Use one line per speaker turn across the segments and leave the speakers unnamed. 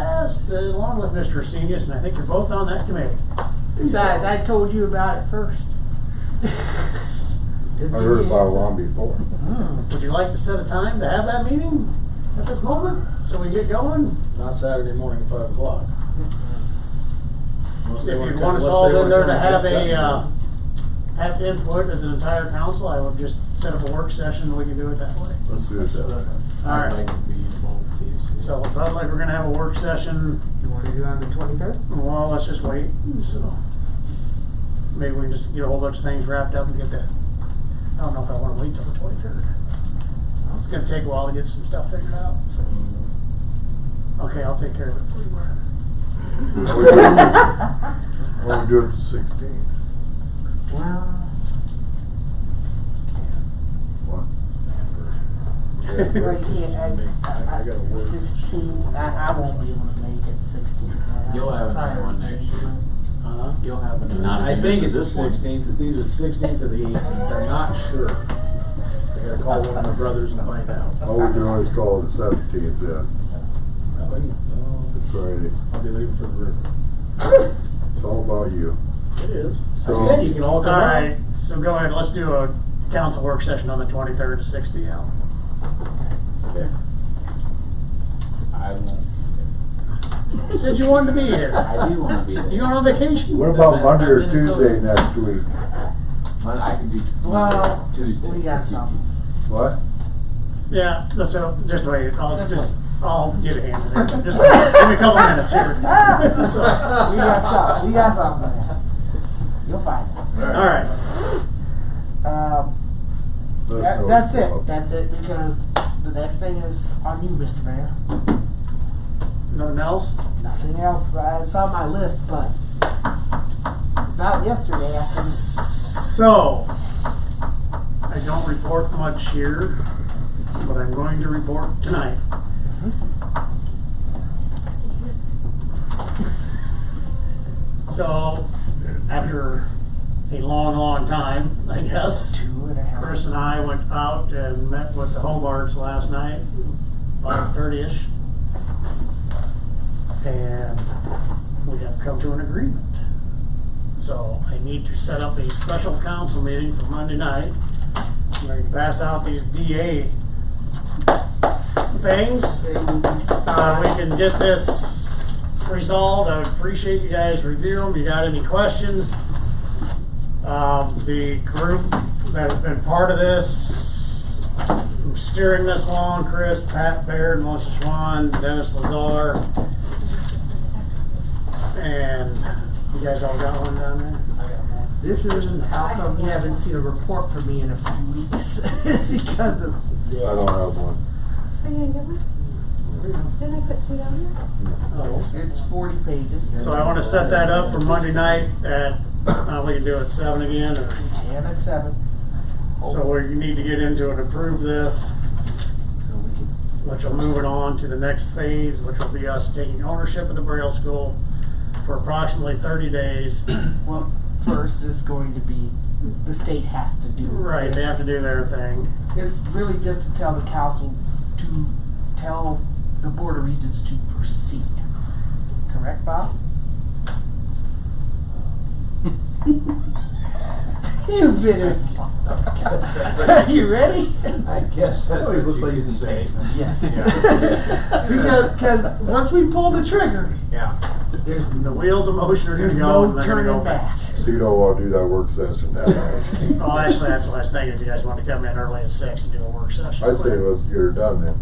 list uh, along with Mr. Senius, and I think you're both on that committee.
Besides, I told you about it first.
I heard about one before.
Hmm.
Would you like to set a time to have that meeting at this moment, so we get going?
Not Saturday morning, five o'clock. Unless
If
they
you
come-
want us
unless they
all in
wanna
there
come
to
and
have
get
a, uh,
customers.
have input as an entire council, I would just set up a work session, we can do it that way.
Let's do it that way.
All
I'd
right.
like to be involved too.
So it sounds like we're gonna have a work session,
You wanna do it on the twenty-third?
well, let's just wait, so. Maybe we can just get a whole bunch of things wrapped up and get that, I don't know if I wanna wait till the twenty-third. It's gonna take a while to get some stuff figured out, so, okay, I'll take care of it for you, Brian.
What we do- what we do it the sixteenth.
Well.
What?
Right, yeah, I, I,
I gotta
I,
work.
uh, sixteen, I, I won't be able to make it sixteen. I-
You'll have
I'll
another one
try to
next
make
year.
it.
Uh-huh.
You'll have an.
I think it's the
this one.
sixteenth, it's either the sixteenth or the eighteenth, I'm not sure. I gotta call one of my brothers and find out.
Oh, we can always call it the seventeenth then. It's
I'll
Friday.
be leaving for the river.
It's all about you.
It is. I
So-
said you can all come
All right,
out.
so go ahead, let's do a council work session on the twenty-third at six P M.
Okay.
I won't.
You said you wanted to be here.
I do wanna be there.
You going on vacation?
What about Monday or Tuesday next week?
But I can do.
Well,
Tuesday.
we got some.
What?
Yeah, let's, uh, just wait, I'll just, I'll get a hand in there, just give me a couple minutes here. So,
We got some, we got something there. You'll find it.
All right.
Um,
Let's
That,
know.
that's it, that's it, because the next thing is on you, Mr. Mayor.
Nothing else?
Nothing else, but it's on my list, but about yesterday, I couldn't,
So, I don't report much here, but I'm going to report tonight. So, after a long, long time, I guess,
two and a half.
Chris and I went out and met with the Hobarts last night, five thirty-ish. And we have come to an agreement. So I need to set up a special council meeting for Monday night. I'm going to pass out these DA things.
They will be
Uh,
signed.
we can get this resolved. I appreciate you guys reviewing them. You got any questions? Um, the group that has been part of this, steering this along, Chris, Pat Baird, Melissa Schwann, Dennis Lazar. And you guys all got one down there?
This is how come you haven't seen a report from me in a few weeks. it's because of
I don't have one.
Are you gonna get one? Didn't I put two down there?
Oh,
it's 40 pages.
So I wanna set that up for Monday night at, uh, we can do it seven again or?
And at Oh. 7.
So we need to get into and approve this,
So we can.
which will move it on to the next phase, which will be us taking ownership of the Braille School for approximately thirty days.
Well, first is going to be the state has to do it.
Right, they have to do their thing.
It's really just to tell the council to tell the Board of Regents to proceed. Correct, Bob? You've been in. you ready?
I guess that's
Oh, he looks like
you
he's in
can say.
pain.
Yes. because cause once we pull the trigger,
Yeah.
there's
The
no,
wheels of motion are
there's
gonna go and
no
they're gonna go
turning
back.
back.
So you don't wanna do that work session that night.
Well, actually, that's what I was thinking, if you guys wanna come in early at six and do a work session.
I say let's get her done then.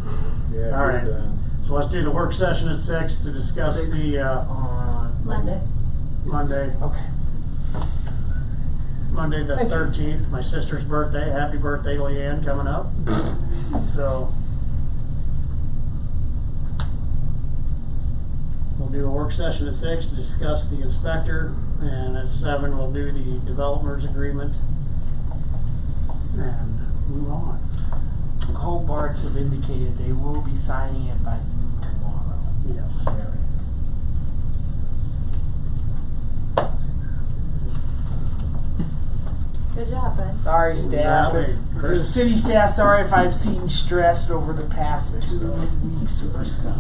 Yeah.
All
we're
right.
done.
So let's do the work session at six to discuss
Six.
the, uh,
On
Monday.
Monday,
Okay.
Monday the
Thank you.
thirteenth, my sister's birthday. Happy birthday, Leanne, coming up. So. We'll do a work session at six to discuss the inspector, and at seven, we'll do the developers agreement. And move on.
Hobarts have indicated they will be signing it by noon tomorrow.
Yes.
Good job, bud.
Sorry, staff.
Now,
The
Chris-
city staff, sorry if I've seemed stressed over the past two weeks or so.